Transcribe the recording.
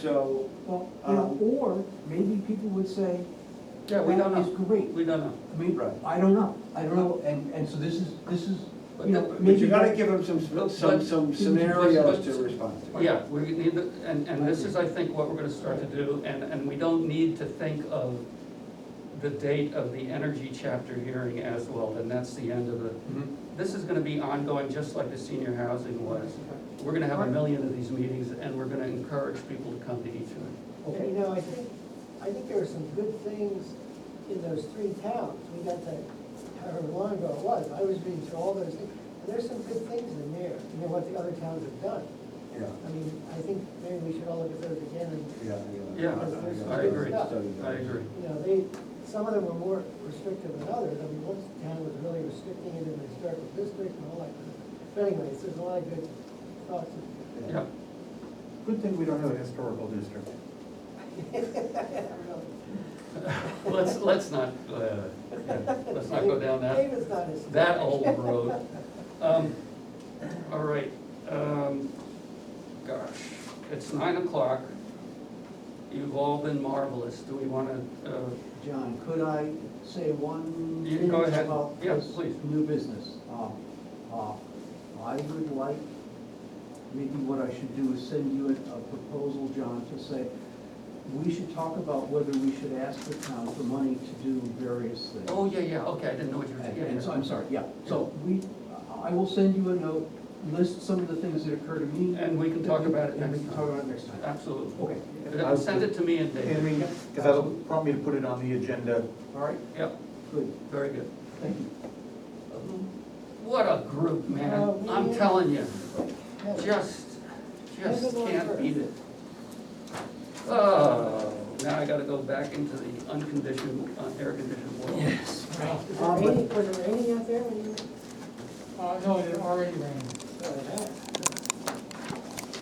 So, Well, you know, or maybe people would say, yeah, we don't that is know. great. We don't know. I mean, Right. I don't know, I don't know, and, and so this is, this is, But you the- know, but But maybe. you gotta give them some, some, But- some but- scenarios to but- respond to. Yeah, we need, to- and, and this is, I think, what we're gonna start to do, and, and we don't need to think of the date of the energy chapter hearing as well, then that's the end of the, Mm-hmm. Mhm. this is gonna be ongoing, just like the senior housing was. We're gonna have a million of these meetings, and we're gonna encourage people to come to each one. And you know, I think, I think there were some good things in those three towns. We got to, however long ago it was, I was reading through all those things. And there's some good things in there, you know, what the other towns have done. Yeah, I mean, I think maybe we should all look at those again and, yeah, Yeah, I agree. I agree. you know, they, some of them were more restrictive than others. I mean, one town was really restricting it in the historical district and all that. kind of stuff. But anyways, there's a lot of good thoughts. in there. Yeah, Good thing we don't have a historical district. I don't know. let's, let's not, uh, yeah, let's not go down that. David's not as. that old road. Um, All right, um, gosh, it's nine o'clock. You've all been marvelous. Do we want to, uh, John, could I say one? Yeah, go minute ahead. about Yeah, this please. New business. Uh, uh, I would like, maybe what I should do is send you a a proposal, John, to say, we should talk about whether we should ask the town for money to do various things. oh, yeah, yeah, okay, I didn't know what you were And- saying. And so, I'm sorry, yeah, so we, I will send you a note, list some of the things that occur to me. And we can talk about it And we next can time. talk about it next time. Absolutely. Okay, Uh, Send it to me and And David. we, because that'll prompt me to put it on the agenda. all right, Yep, good, very good. thank you. What a group, Uh, man. we- I'm telling you, Yeah. just, just David went can't first. beat it. Oh, now I gotta go back into the unconditioned, uh, air-conditioned world. Yes. Is it raining, was it raining out there when you? Uh, no, it already rained. Oh, it had.